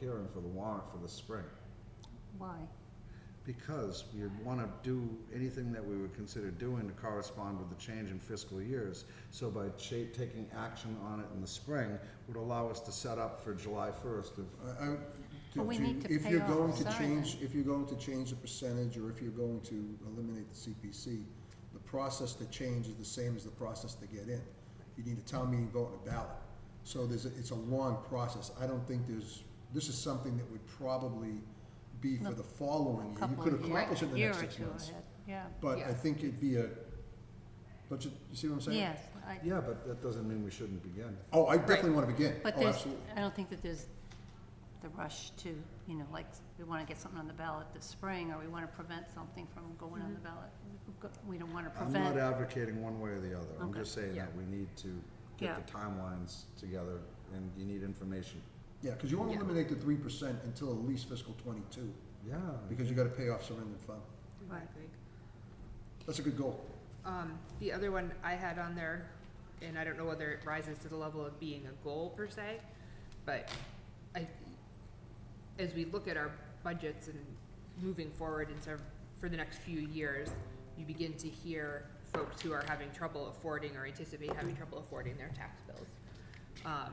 hearing for the warrant for the spring, Why? because we want to do anything that we would consider doing to correspond with the change in fiscal years. So by cha- taking action on it in the spring would allow us to set up for July first of, uh, I- I- But we to- need to If pay you're off going to Zion. change, if you're going to change the percentage, or if you're going to eliminate the CPC, the process to change is the same as the process to get in. You need a town meeting vote and a ballot. So there's, a- it's a long process. I don't think there's, this is something that would probably be for Look, the following year. You Couple could of years- accomplish it in the year next or six two months. ahead. Yeah, But I Yeah. think it'd be a, don't you, you see what I'm saying? yes, I, yeah, but that doesn't mean we shouldn't begin. Oh, I definitely want to begin. but Oh, there's, absolutely. I don't think that there's the rush to, you know, like, we wanna get something on the ballot this spring, or we wanna prevent something from going Mm-hmm. on the ballot. We don't wanna I'm not prevent, advocating one way or the other, I'm Okay. just saying that Yeah. we need to Yeah. get the timelines together, and you need information. Yeah, because you won't Yeah. eliminate the three percent until at least fiscal twenty-two, Yeah. because you gotta pay off surrender fund. Right. Exactly. That's a good goal. Um, the other one I had on there, and I don't know whether it rises to the level of being a goal per se, but I, as we look at our budgets and moving forward and sort of for the next few years, you begin to hear folks who are having trouble affording or anticipate having trouble affording their tax bills. Um,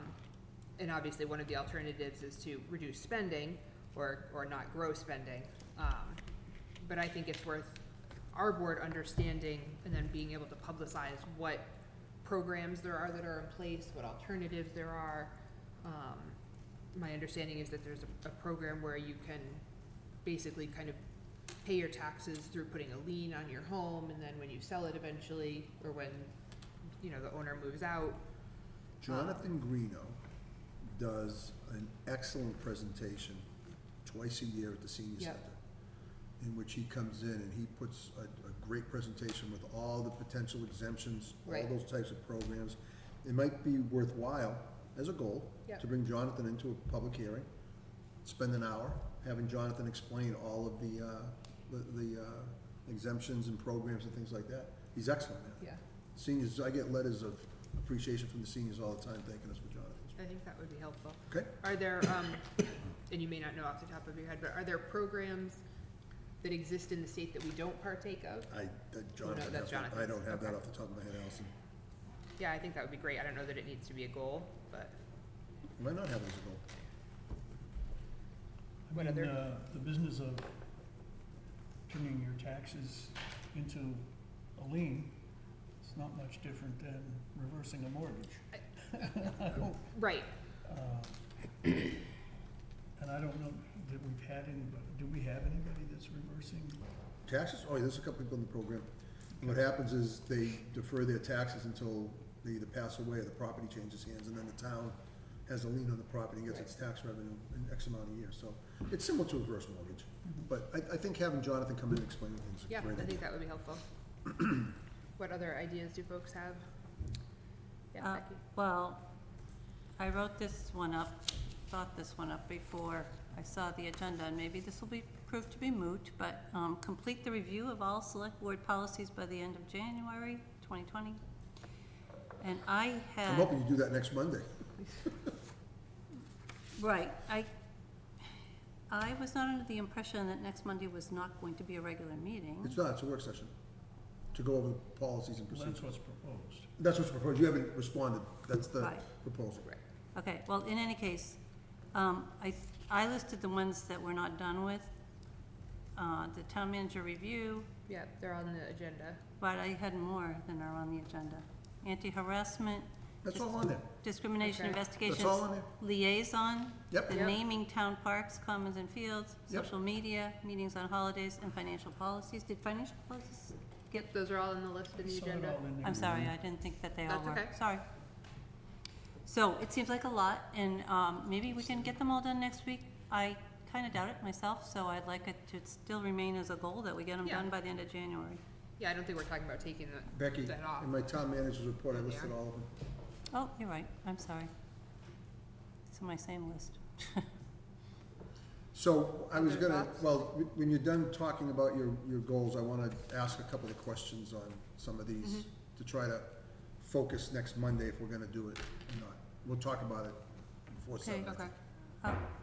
and obviously, one of the alternatives is to reduce spending or, or not grow spending. Um, but I think it's worth our board understanding and then being able to publicize what programs there are that are in place, what alternatives there are. Um, my understanding is that there's a, a program where you can basically kind of pay your taxes through putting a lien on your home, and then when you sell it eventually, or when, you know, the owner moves out, Jonathan Greeno does an excellent presentation twice a year at the senior Yep. center. In which he comes in and he puts a, a great presentation with all the potential exemptions, all Right. those types of programs. It might be worthwhile as a goal Yep. to bring Jonathan into a public hearing, spend an hour having Jonathan explain all of the, uh, the, the uh, exemptions and programs and things like that. He's excellent at it. yeah, Seniors, I get letters of appreciation from the seniors all the time thanking us for Jonathan's. I think that would be helpful. Okay? Are there, um, and you may not know off the top of your head, but are there programs that exist in the state that we don't partake of? I, that Jonathan that's has, not- I don't Jonathan's, have that okay. off the top of my head, Allison. Yeah, I think that would be great. I don't know that it needs to be a goal, but You might not have it as a goal. I What mean, other- uh, the business of turning your taxes into a lien, it's not much different than reversing a mortgage. I don't, right, uh, And I don't know that we've had anybody, do we have anybody that's reversing? Taxes? Oh, yeah, there's a couple people in the program. What happens is they defer their taxes until they either pass away or the property changes hands, and then the town has a lien on the property and gets its tax revenue in X amount of years. So it's similar to a reverse mortgage. But I, I think having Jonathan come in and explain things is a Mm-hmm. yeah, great I idea. think that would be helpful. What other ideas do folks have? Yeah, uh, Becky? well, I wrote this one up, thought this one up before I saw the agenda, and maybe this will be, proved to be moot, but, um, complete the review of all select board policies by the end of January twenty twenty. And I had. I'm hoping you do that next Monday. Right, I, I was not under the impression that next Monday was not going to be a regular meeting. It's not, it's a work session, to go over the policies and Well, procedures. that's what's proposed. That's what's proposed, you haven't responded, that's the Right. proposal. Right. Okay, well, in any case, um, I, I listed the ones that we're not done with. Uh, the town manager review, Yeah, they're on the agenda. but I had more than are on the agenda. Anti-harassment, That's all on there, discrimination Okay. investigations. That's all in there. Liaison, yep, the Yep. naming town parks, commons and fields, Yep. social media, meetings on holidays, and financial policies. Did financial policies get Those are all on the list in the Saw it agenda. all in there. I'm sorry, I didn't think that they all That's were. okay. Sorry. So it seems like a lot, and um, maybe we can get them all done next week. I kind of doubt it myself, so I'd like it to still remain as a goal that we get them Yeah. done by the end of January. Yeah, I don't think we're talking about taking the, Becky, that off. in my town manager's report, I Yeah. listed all of them. Oh, you're right, I'm sorry. It's on my same list. So, I was Other gonna, thoughts? well, wh- when you're done talking about your, your goals, I wanna ask a couple of questions on some of Mm-hmm. these, to try to focus next Monday if we're gonna do it or not. We'll talk about it before Okay. seven. I Okay. think. Uh,